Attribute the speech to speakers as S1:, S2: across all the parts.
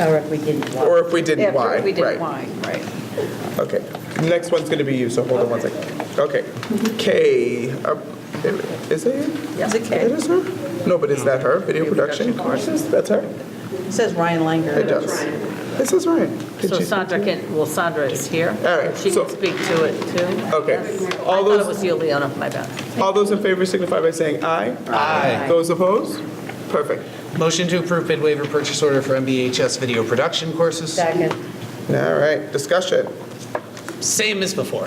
S1: Or if we didn't want.
S2: Or if we didn't, why?
S3: If we didn't
S2: Right.
S3: why, right.
S2: Okay, next one's gonna be you, so hold on one second. Okay, K, uh, is it?
S3: Is it
S2: It
S3: K?
S2: is her? No, but is that her? Video production courses? That's her?
S3: It says Ryan Langer.
S2: It does. It says Ryan. Did
S4: So
S2: she-
S4: Sandra can, well, Sandra is here.
S2: All right,
S4: She
S2: so-
S4: can speak to it, too.
S2: Okay,
S4: I
S2: all
S4: thought it
S2: those,
S4: was you, Leona, my bad.
S2: all those in favor signify by saying aye. Aye. Those opposed? Perfect.
S5: Motion to approve bid waiver purchase order for MBHS video production courses.
S1: Second,
S2: All right, discussion.
S5: Same as before.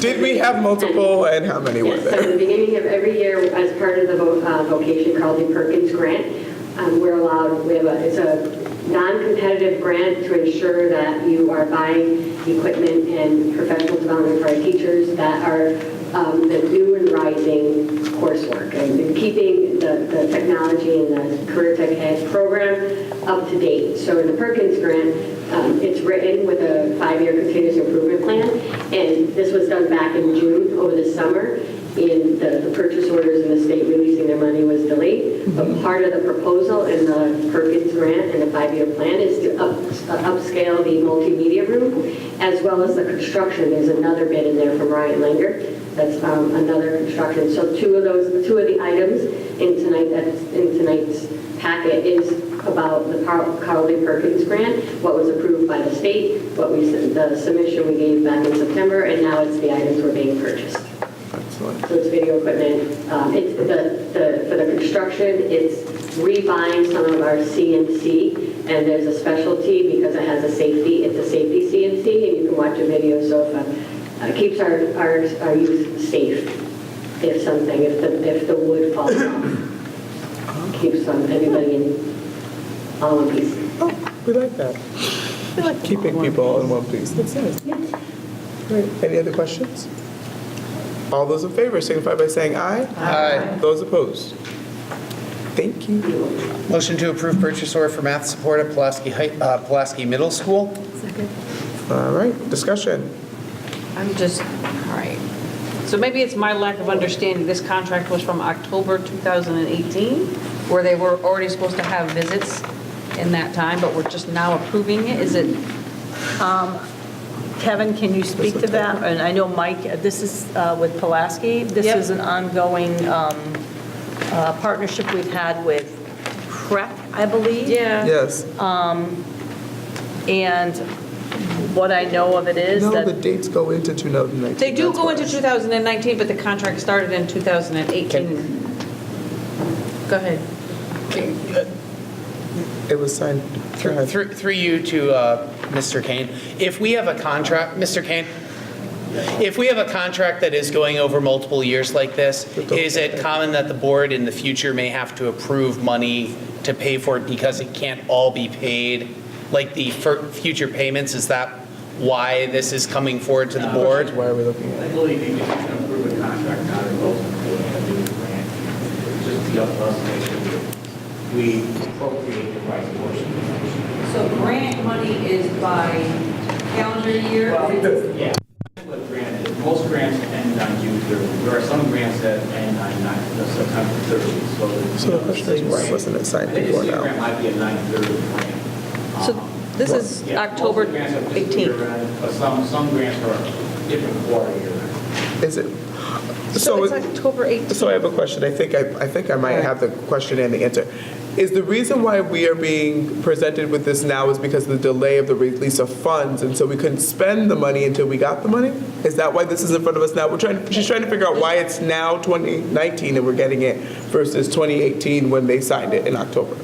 S2: Did we have multiple and how many were
S6: Yes, so
S2: there?
S6: at the beginning of every year, as part of the vo- uh, Vocation Carleton Perkins Grant, um, we're allowed, we have a, it's a non-competitive grant to ensure that you are buying equipment and professional development for our teachers that are um, the new and rising coursework and keeping the the technology and the career tech ed program up to date. So in the Perkins Grant, um, It's written with a five-year continuous improvement plan, and this was done back in June over the summer, and the the purchase orders and the state releasing their money was delayed. But part of the proposal in the Perkins grant and the five-year plan is to up- uh, upscale the multimedia room, as well as the construction. There's another bid in there from Ryan Langer, that's um, another construction. So two of those, two of the items in tonight, that's in tonight's packet is about the Carl Carl Lee Perkins grant, what was approved by the state, what we, the submission we gave back in September, and now it's the items we're being purchased. So it's video equipment, um, it's the, the, for the construction, it's rebuying some of our CNC, and there's a specialty because it has a safety, it's a safety CNC, and you can watch a video, so if, uh, it keeps our, our, our youth safe if something, if the, if the wood falls off. Keeps um, everybody in, all in peace.
S2: Oh, we like that. Keeping people in one piece, that's nice. Great. Any other questions? All those in favor signify by saying aye. Aye. Those opposed? Thank you.
S5: Motion to approve purchase order for math support at Pulaski, High- uh, Pulaski Middle School.
S2: All right, discussion.
S3: I'm just, all right. So maybe it's my lack of understanding, this contract was from October 2018, where they were already supposed to have visits in that time, but we're just now approving it, is it?
S7: Kevin, can you speak to that? And I know Mike, this is uh, with Pulaski. This
S3: Yep.
S7: is an ongoing um, uh, partnership we've had with CREC, I believe.
S2: Yes.
S7: And what I know of it is
S2: No, the
S7: that,
S2: dates go into 2019.
S3: They do
S2: that's
S3: go
S2: why.
S3: into 2019, but the contract started in 2018. Go ahead.
S2: It was signed. Go ahead.
S5: Through through you to uh, Mr. Kane. If we have a contract, Mr. Kane, if we have a contract that is going over multiple years like this, is it common that the board in the future may have to approve money to pay for it because it can't all be paid? Like the fir- future payments, is that why this is coming forward to the board?
S2: Why are we looking at
S8: I
S2: it?
S8: believe you can approve a contract, not a vote, a new grant. It's Just the us to make sure that we appropriate the right portion.
S9: So grant money is by calendar year?
S8: Yeah. What grant is, most grants end on June 30th. There are some grants that end on nine- no, September 30th, so. the-
S2: So the question is, why wasn't it signed before
S8: I think the
S2: now?
S8: grant might be a 9/30 grant.
S3: So
S8: Um,
S3: this is
S8: yeah, most
S3: October
S8: grants are just
S3: 18th.
S8: year-round, But some, some grants are different quarter year.
S2: Is it?
S3: So it's
S2: it-
S3: October 18th.
S2: So I have a question. I think I, I think I might have the question and the answer. Is the reason why we are being presented with this now is because of the delay of the release of funds, and so we couldn't spend the money until we got the money? Is that why this is in front of us now? We're trying. She's trying to figure out why it's now 2019 and we're getting it versus 2018 when they signed it in October.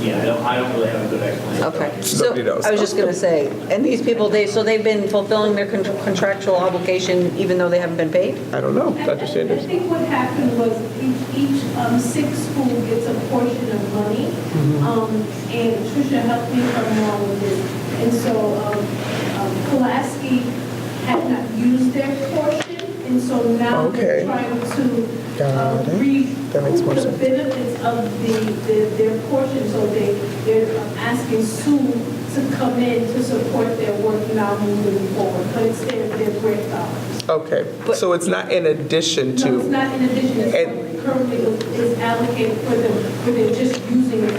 S8: Yeah, I don't, I don't really have a good explanation.
S3: Okay. So
S2: Nobody knows.
S3: I was just going to say, and these people, they, so they've been fulfilling their con- contractual obligation even though they haven't been paid?
S2: I don't know,
S10: I-
S2: Oh, Dr.
S10: I-
S2: Sanders.
S10: I think what happened was each, each um, sick school gets a portion of money.
S2: Mm-hmm.
S10: Um, And Tricia helped me if I'm wrong with this. And so um, um, Pulaski had not used their portion, and so now
S2: Okay.
S10: they're trying to uh,
S2: Got it.
S10: recoup
S2: That makes more
S10: the
S2: sense.
S10: benefits of the, the- their portion. So they, they're asking Sue to come in to support their work now moving forward, but it's their, their grant dollars.
S2: Okay, so it's not in addition to.
S10: No, it's not in addition, it's
S2: And-
S10: currently is allocated for them, for them just using it